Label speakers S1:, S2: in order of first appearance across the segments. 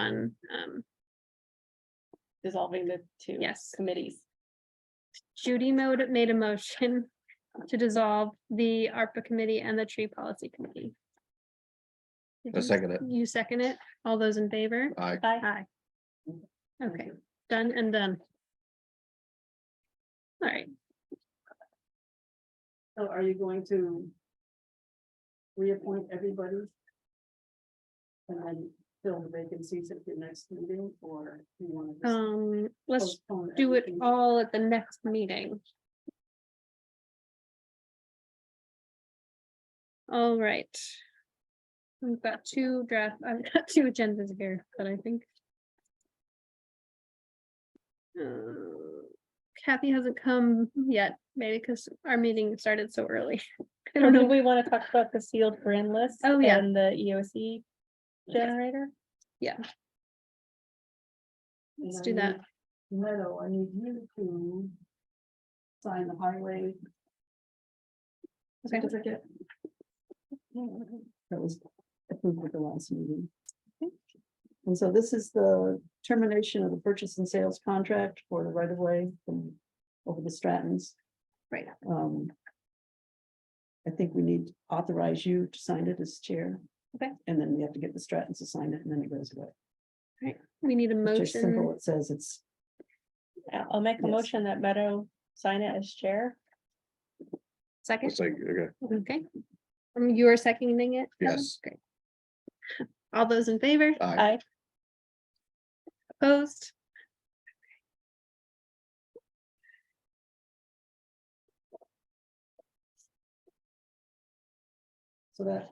S1: on, um,
S2: dissolving the two
S1: yes.
S2: committees.
S1: Judy mode made a motion to dissolve the ARPA committee and the tree policy committee. Did
S3: I
S1: you-
S3: second it.
S1: You second it? All those in favor?
S3: I,
S2: Bye.
S1: Aye. Okay, done and done. All right,
S4: So are you going to reappoint everybody? And then fill the vacancies at the next meeting, or do you want to
S1: um,
S4: just
S1: let's
S4: postpone?
S1: do it
S4: everything?
S1: all at the next meeting. All right. We've got two draft, I've got two agendas here, but I think. Uh, Kathy hasn't come yet, maybe because our meeting started so early. I don't
S2: Do
S1: know.
S2: we want to talk about the sealed brand list?
S1: Oh, yeah.
S2: And the EOC generator?
S4: And
S1: let's
S4: I
S1: do that.
S4: need- Meadow, I need you to sign the highway.
S1: Okay.
S4: Certificate.
S5: that was approved at the last meeting. And so this is the termination of the purchase and sales contract for the right of way from over the Strattons.
S1: Right.
S5: Um. I think we need to authorize you to sign it as chair.
S1: Okay.
S5: And then we have to get the Strattons to sign it and then it goes away.
S1: We need a
S5: It's just simple.
S1: motion.
S5: It says it's,
S2: Yeah, I'll make a
S5: Yes.
S2: motion that Meadow sign it as chair.
S1: Second,
S3: it's like, okay,
S1: okay. Um, You are seconding it? Ellen?
S3: Yes. Uh,
S1: Great. All those in favor?
S3: I,
S2: I,
S1: Opposed?
S5: so that,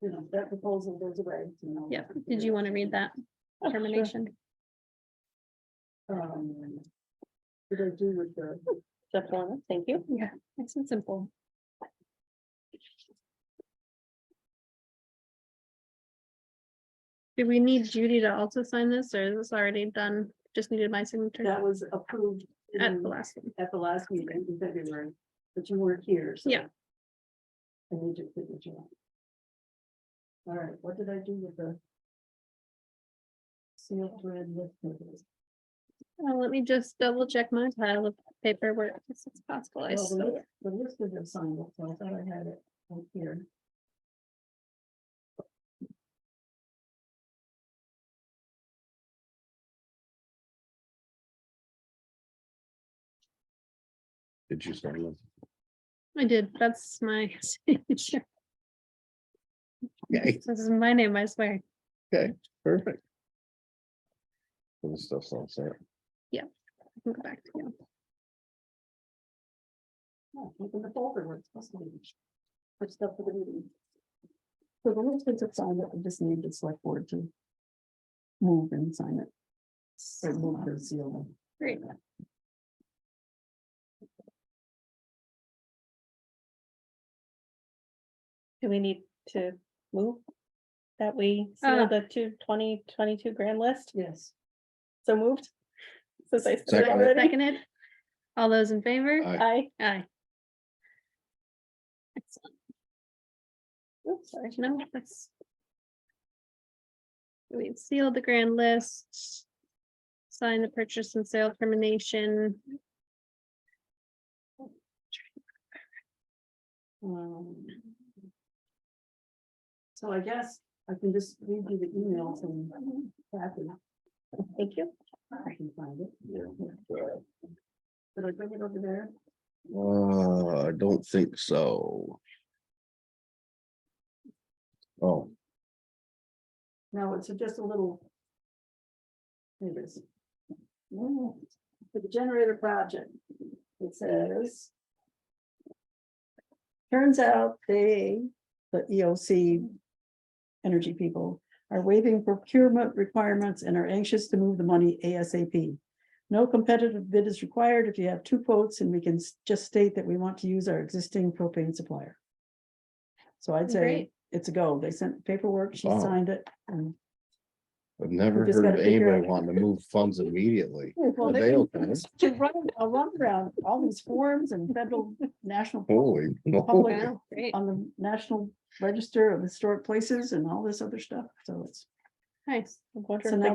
S4: You know, that proposal goes away. you know.
S1: Yeah, did you want to read that
S2: Oh, sure.
S1: termination?
S4: Um, Did I do with the?
S2: the form, thank you.
S1: Yeah, nice and simple. Do we need Judy to also sign this, or is this already done? Just needed my signature
S4: That was approved.
S1: at
S4: in-
S1: the last one.
S4: at the last meeting in February, but you weren't here, so.
S1: Yeah.
S4: I need your signature. on it. All right, what did I do with the? Sealed thread list. papers?
S1: Uh, Let me just double check my pile of paperwork, if it's possible. I
S4: Well, The
S1: saw-
S4: list- the list is assigned, so I thought I had it right here.
S3: did you sign it?
S1: I did, that's my signature.
S3: Yay,
S1: This is my name, I swear.
S3: perfect. And this stuff's all set.
S1: I can Go back to you.
S4: Oh, Look in the folder where it's supposed to be. Put stuff for the meeting.
S5: so the list is assigned, but we just need the select board to. Move and sign it. Or move the seal.
S1: Great.
S2: Do we need to move? That we seal
S1: Uh.
S2: the two twenty twenty-two grand list,
S4: Yes.
S2: so moved? Since I said that
S3: Second it.
S2: already.
S1: Seconded. All those in favor?
S3: I,
S2: I,
S1: Aye. Excellent. Oops, sorry, no, that's. We sealed the grand list. Sign the purchase and sale termination.
S4: Um, So I guess I can just read you the emails and.
S2: thank you.
S4: I can find it.
S3: Yeah.
S4: Did I bring it over there?
S3: uh, I don't think so. Oh,
S4: No, it's just a little. Here it is. Mm, For the generator project, it says.
S5: Turns out they, the EOC energy people, are waiving procurement requirements and are anxious to move the money ASAP. No competitive bid is required if you have two quotes and we can s- just state that we want to use our existing propane supplier. So I'd say
S1: Great.
S5: it's a go. They sent paperwork, she
S3: Wow.
S5: signed it. and-
S3: I've never
S5: just
S3: heard of
S5: gotta figure
S3: anybody wanting to move funds immediately.
S5: Well,
S3: Are they okay?
S5: To run a runaround, all these forms and federal, national
S3: Holy.
S5: Public-
S3: moly.
S5: Okay.
S1: Wow, great.
S5: on the National Register of Historic Places and all this other stuff, so it's.
S1: Nice.
S2: I wonder
S5: So
S2: if
S5: now
S2: the